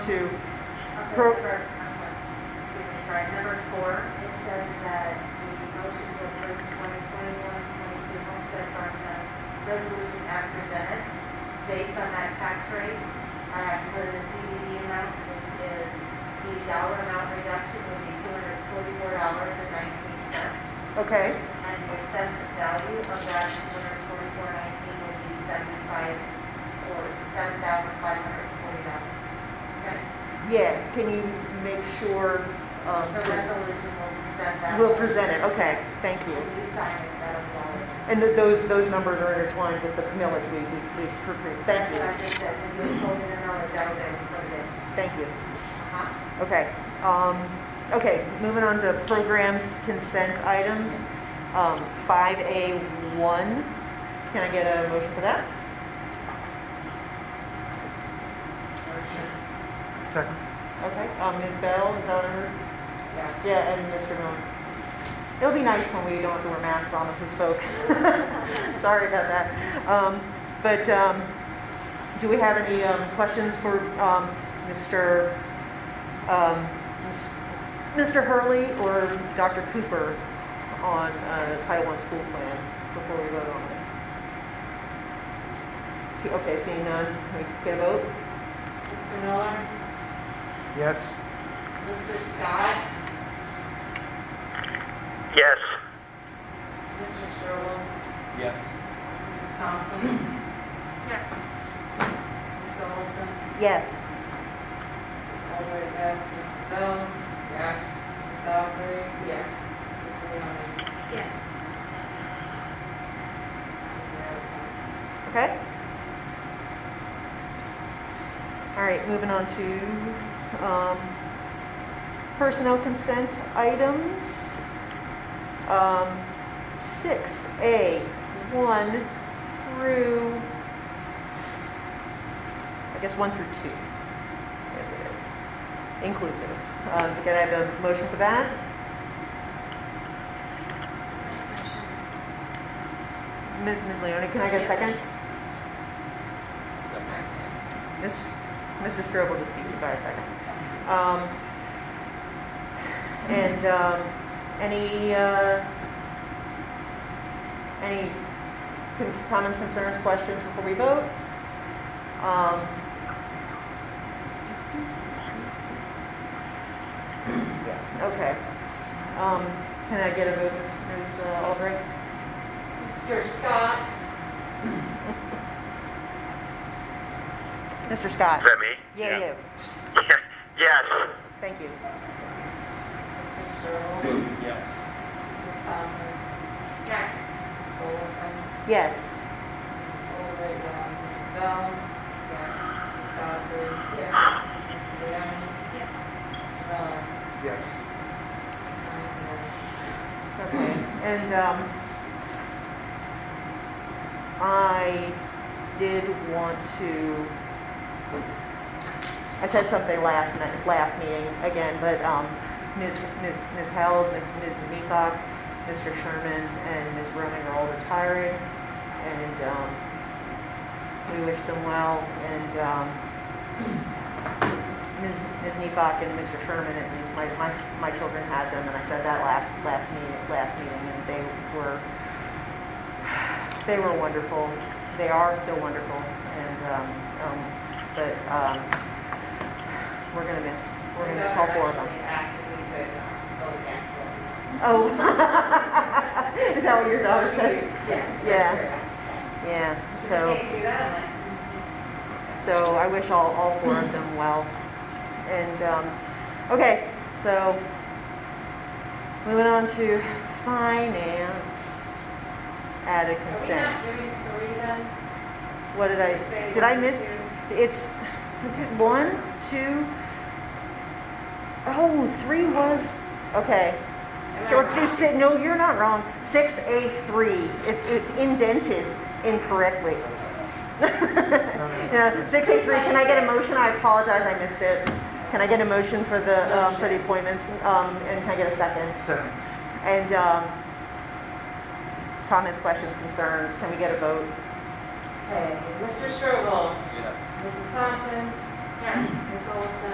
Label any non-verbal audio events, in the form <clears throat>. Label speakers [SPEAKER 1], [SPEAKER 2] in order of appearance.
[SPEAKER 1] to,
[SPEAKER 2] Okay,
[SPEAKER 1] Pro-
[SPEAKER 2] for- I'm sorry, excuse me, sorry, number four, it says that the motion to approve 2021-22 homestead farm plan resolution as presented, based on that tax rate, I have to put in the CDD amount, which is the dollar amount reduction would be $244.19.
[SPEAKER 1] okay,
[SPEAKER 2] And the assessed value of that $244.19 would be 75, or $7,540. Okay?
[SPEAKER 1] yeah, can you make sure,
[SPEAKER 2] The
[SPEAKER 1] um,
[SPEAKER 2] resolution will present that.
[SPEAKER 1] we'll present it, okay, thank you.
[SPEAKER 2] When you sign it, that'll follow.
[SPEAKER 1] And th- those, those numbers are intertwined with the millage we, we, we approved, thank
[SPEAKER 2] That's what I
[SPEAKER 1] you,
[SPEAKER 2] just said, when you told me the number, that was it, put it in.
[SPEAKER 1] thank you.
[SPEAKER 2] Uh-huh.
[SPEAKER 1] Okay, um, okay, moving on to programs consent items. Um, five A one, can I get a motion for that?
[SPEAKER 3] Second.
[SPEAKER 1] Okay, um, Ms. Bell, is that what I heard?
[SPEAKER 2] Yeah.
[SPEAKER 1] Yeah, and Mr. Millen. It'll be nice when we don't have to wear masks on if we spoke. <laughs> Sorry about that. Um, but, um, do we have any, um, questions for, um, Mr., um, Ms- Mr. Hurley or Dr. Cooper on, uh, Title I school plan before we vote on it? Two- Okay, seeing none, can we get a vote?
[SPEAKER 4] Mr. Miller,
[SPEAKER 3] Yes.
[SPEAKER 4] Mr. Scott,
[SPEAKER 3] Yes.
[SPEAKER 4] Mr. Sherwood,
[SPEAKER 3] Yes.
[SPEAKER 4] Mrs. Thompson.
[SPEAKER 1] <clears throat>
[SPEAKER 4] Yes. Mr. Olson,
[SPEAKER 1] Yes.
[SPEAKER 4] Mrs. Elbert, yes, Mrs. Bell. Yes. Mrs. Godfrey. Yes. Mrs. Leoni.
[SPEAKER 2] Yes.
[SPEAKER 1] Okay. All right, moving on to um, personnel consent items. Um, 6A, 1 through, I guess 1 through 2. Yes, it is. Inclusive. Um, Can I have a motion for that? Ms. Ms. Leoni, can I get a second? Miss, Mr. Strobel just beat me by a second. Um, and, um, any, uh, any cons- comments, concerns, questions before we vote? Um, yeah, okay. S- Um, can I get a vote, Ms. Ms. Albright?
[SPEAKER 4] Mr. Scott.
[SPEAKER 1] Mr. Scott?
[SPEAKER 3] Is that me?
[SPEAKER 1] Yeah, you.
[SPEAKER 3] <laughs> yes.
[SPEAKER 1] Thank you.
[SPEAKER 4] Mr. Sherwood,
[SPEAKER 3] Yes.
[SPEAKER 4] Mrs. Thompson. Yes. Mrs. Olson,
[SPEAKER 1] Yes.
[SPEAKER 4] Mrs. Elbert, yes, Mrs. Bell. Yes. Mrs. Godfrey. Yes. Mrs. Leoni.
[SPEAKER 2] Yes.
[SPEAKER 4] Mr. Miller.
[SPEAKER 3] Yes.
[SPEAKER 4] Nine zero.
[SPEAKER 1] Okay, and, um, I did want to, I said something last minute, last meeting again, but, um, Ms., Ms. Ms. Held, Ms., Ms. Neecock, Mr. Sherman, and Ms. Roman are all retiring, and, um, we wish them well, and, um, <clears throat> Ms. Ms. Neecock and Mr. Sherman, at least, my, my, my children had them, and I said that last, last meeting, last meeting, and they were, they were wonderful. They are still wonderful, and, um, um, but, um, we're gonna miss, we're gonna miss all four of them.
[SPEAKER 4] Actually asked if we could uh, vote against it.
[SPEAKER 1] Oh. <laughs> Is that what your daughter said?
[SPEAKER 4] Yeah.
[SPEAKER 1] Yeah.
[SPEAKER 4] that's
[SPEAKER 1] Yeah,
[SPEAKER 4] what
[SPEAKER 1] so.
[SPEAKER 4] it is. Just can't do that, like,
[SPEAKER 1] So I wish all, all four of them well. And, um, okay, so moving on to finance, added
[SPEAKER 4] Are we
[SPEAKER 1] consent.
[SPEAKER 4] not doing three then?
[SPEAKER 1] What did I,
[SPEAKER 4] Say
[SPEAKER 1] did I
[SPEAKER 4] one,
[SPEAKER 1] miss?
[SPEAKER 4] two.
[SPEAKER 1] It's two- one, two, oh, three was, okay.
[SPEAKER 4] Am I
[SPEAKER 1] Okay, Let's do
[SPEAKER 4] wrong?
[SPEAKER 1] six, no, you're not wrong. Six A three, it, it's indented incorrectly. Yeah, six A three, can I get a motion? I apologize, I missed it. Can I get a motion for the, um, for the appointments, um, and can I get a second?
[SPEAKER 3] Second.
[SPEAKER 1] And, um, comments, questions, concerns, can we get a vote?
[SPEAKER 4] Okay, Mr. Sherwood,
[SPEAKER 3] Yes.
[SPEAKER 1] <clears throat>
[SPEAKER 4] Mrs. Thompson. Yes. Ms. Olson.